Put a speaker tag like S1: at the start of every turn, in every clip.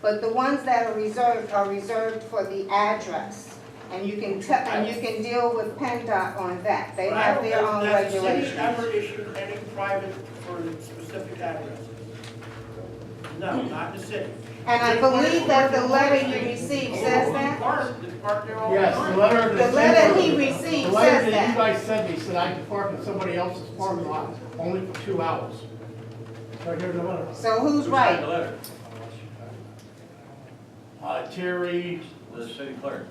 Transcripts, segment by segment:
S1: But the ones that are reserved are reserved for the address. And you can tell, and you can deal with PennDOT on that. They
S2: But I
S1: have
S2: don't
S1: their
S2: know
S1: own
S2: that the city
S1: regulations.
S2: Ever issued any private for specific addresses? No, not the city.
S1: And I believe that the letter you received says that.
S2: Park, the park there all the
S3: Yes, the
S2: time.
S3: letter
S1: The
S3: that.
S1: letter he
S3: The
S1: received
S3: letter
S1: says
S3: that you
S1: that.
S3: guys sent me said I could park in somebody else's parking lot only for two hours. Right here in the letter.
S1: So who's
S4: Who signed
S1: right?
S4: the letter?
S3: Uh, Terry,
S4: The city clerk.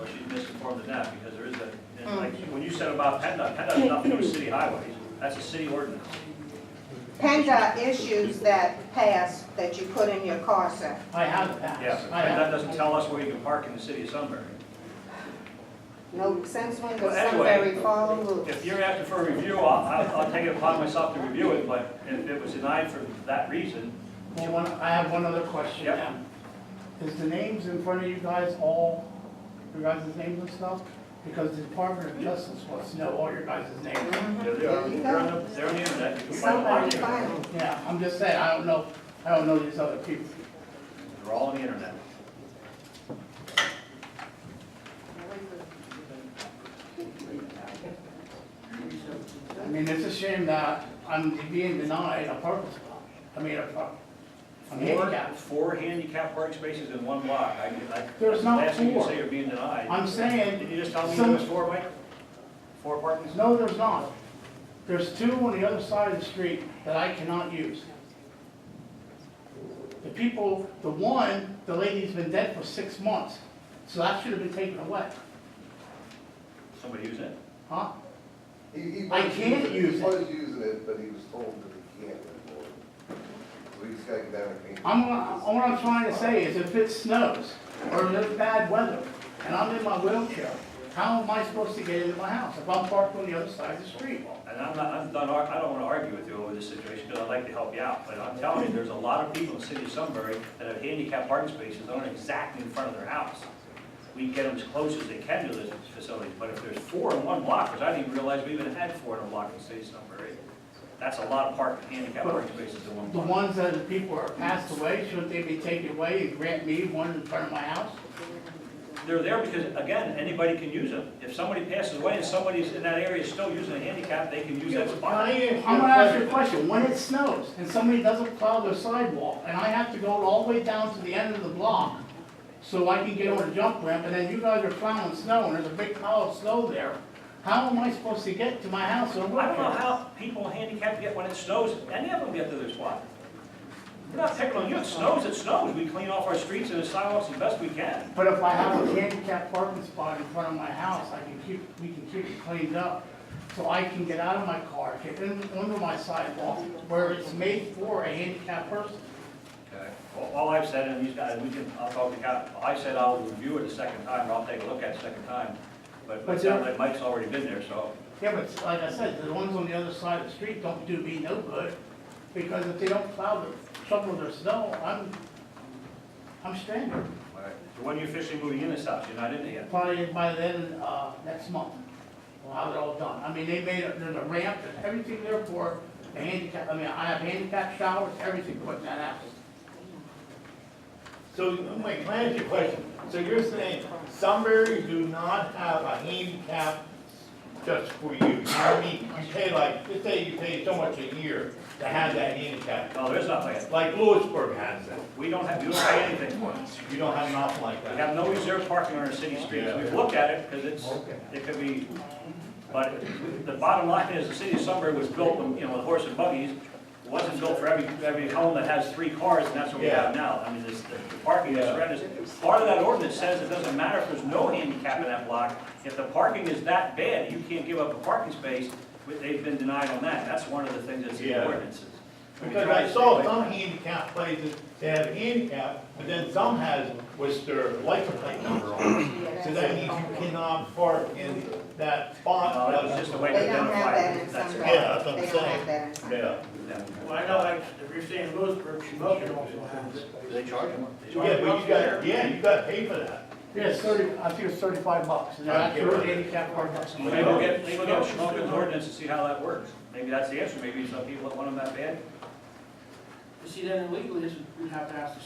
S4: Or she's misinformed in that, because there is a,
S1: Oh.
S4: and like, when you said about PennDOT, PennDOT has nothing to do with city highways. That's a city ordinance.
S1: PennDOT issues that pass that you put in your car, sir.
S3: I have that.
S4: Yeah, but
S3: I
S4: PennDOT
S3: have.
S4: doesn't tell us where you can park in the city of Sunbury.
S1: No, since when does
S4: Well, anyway,
S1: Sunbury follow rules?
S4: If you're asking for a review, I'll, I'll, I'll take it upon myself to review it, but if it was denied for that reason,
S3: Well, one, I have one other question
S4: Yep.
S3: now. Is the names in front of you guys all, your guys' names and stuff? Because the Department of Justice wants to know all your guys' names.
S1: Mm-hmm.
S4: they're, they're
S1: There
S4: on
S1: you
S4: the,
S1: go.
S4: they're on the internet. You can find them on
S1: Somebody
S4: the
S1: find
S4: internet.
S1: them.
S3: Yeah, I'm just saying, I don't know, I don't know these other people.
S4: They're all on the internet.
S3: I mean, it's a shame that I'm being denied a parking spot. I mean, a park, I'm
S4: Four,
S3: handicapped.
S4: four handicap parking spaces in one block. I, I.
S3: There's not
S4: Last thing you
S3: four.
S4: say you're being denied.
S3: I'm
S4: Did
S3: saying,
S4: you just tell me there
S3: Some-
S4: was four, Mike? Four parking spots?
S3: no, there's not. There's two on the other side of the street that I cannot use. The people, the one, the lady's been dead for six months, so that should have been taken away,
S4: Somebody use it?
S3: huh?
S5: He- he
S3: I
S5: was
S3: can't
S5: using-
S3: use it.
S5: He was using it, but he was told that he can't anymore. So he just got down and clean.
S3: I'm, all I'm trying to say is if it snows or there's bad weather and I'm in my wheelchair, how am I supposed to get into my house if I'm parked on the other side of the street?
S4: And I'm not, I'm not, I don't wanna argue with you over this situation, because I'd like to help you out, but I'm telling you, there's a lot of people in the city of Sunbury that have handicapped parking spaces that aren't exactly in front of their house. We get them as close as they can to this facility, but if there's four in one block, which I didn't even realize we even had four in a block in the city of Sunbury, that's a lot of parking, handicap parking spaces in one
S3: The
S4: block.
S3: ones that the people are passed away, shouldn't they be taken away and grant me one in front of my house?
S4: They're there because, again, anybody can use them. If somebody passes away and somebody's in that area still using a handicap, they can use that spot.
S3: I'm gonna ask you a question, when it snows and somebody doesn't plow their sidewalk and I have to go all the way down to the end of the block so I can get on a jump ramp and then you guys are plowing snow and there's a big pile of snow there, how am I supposed to get to my house in a
S4: I don't know
S3: wheelchair?
S4: how people handicapped get when it snows, any of them get to their spot. We're not picking on you, it snows, it snows, we clean off our streets and the sidewalks as best we can.
S3: But if I have a handicap parking spot in front of my house, I can keep, we can keep it cleaned up. So I can get out of my car, get in, under my sidewalk, where it's made for a handicap person.
S4: Okay. Well, All I've said, and these guys, we can, I'll talk to Cap, I said I'll review it a second time, or I'll take a look at it a second time. But it
S3: But
S4: sounds
S3: there-
S4: like Mike's already been there, so.
S3: Yeah, but like I said, the ones on the other side of the street don't do me no good, because if they don't plow the, shovel their snow, I'm, I'm stranded.
S4: all right. So when are you officially moving in this house? You're not in it yet?
S3: Probably by then, uh, next month, I'll have it all done. I mean, they made, a- there's a ramp and everything there for the handicap, I mean, I have handicap showers, everything put in that house.
S6: So, wait, can I ask you a question? So you're saying Sunbury do not have a handicap just for you? I mean, you pay like, just say you pay so much a year to have that handicap.
S4: No, there's nothing.
S6: Like Lewisburg has that.
S4: We don't have, you don't pay anything for it.
S6: You don't have nothing like
S4: We
S6: that.
S4: have no reserved parking on our city streets. We've looked at it because it's, it could be, but the bottom line is the city of Sunbury was built, when, you know, with horse and buggies. It Wasn't built for every, every home that has three cars and that's what we have now. I mean, this, the parking is horrendous. Part of that ordinance says it doesn't matter if there's no handicap in that block. If the parking is that bad, you can't give up a parking space. but They've been denied on that. That's one of the things that's in the
S6: Yeah.
S4: ordinances. We
S6: Because
S4: try to
S6: I
S4: stay
S6: saw
S4: away-
S6: some handicap places, they have handicap, but then some has with their license plate number on it. So that means you cannot park in that spot.
S4: No, that was just a way to
S1: They don't have
S4: identify.
S1: that in
S4: it. That's it.
S1: Sunbury.
S6: Yeah, that's what I'm
S1: They don't have
S6: saying.
S1: that in Sunbury.
S6: Yeah.
S2: Well, I know, like, if you're saying Lewisburg, Shamokin also has it.
S4: Do they charge them? They charge
S6: Yeah,
S4: them
S6: but
S4: up
S6: you
S4: there.
S6: got, yeah, you got to pay for that.
S3: Yeah, it's thirty, I think it's thirty-five bucks, and that's
S6: Okay.
S3: for handicap parking.
S4: Maybe we'll get, maybe we'll get Schmoken's ordinance and see how that works. Maybe that's the answer, maybe some people that want them that bad
S2: You see, then illegally, this would- we'd have to ask the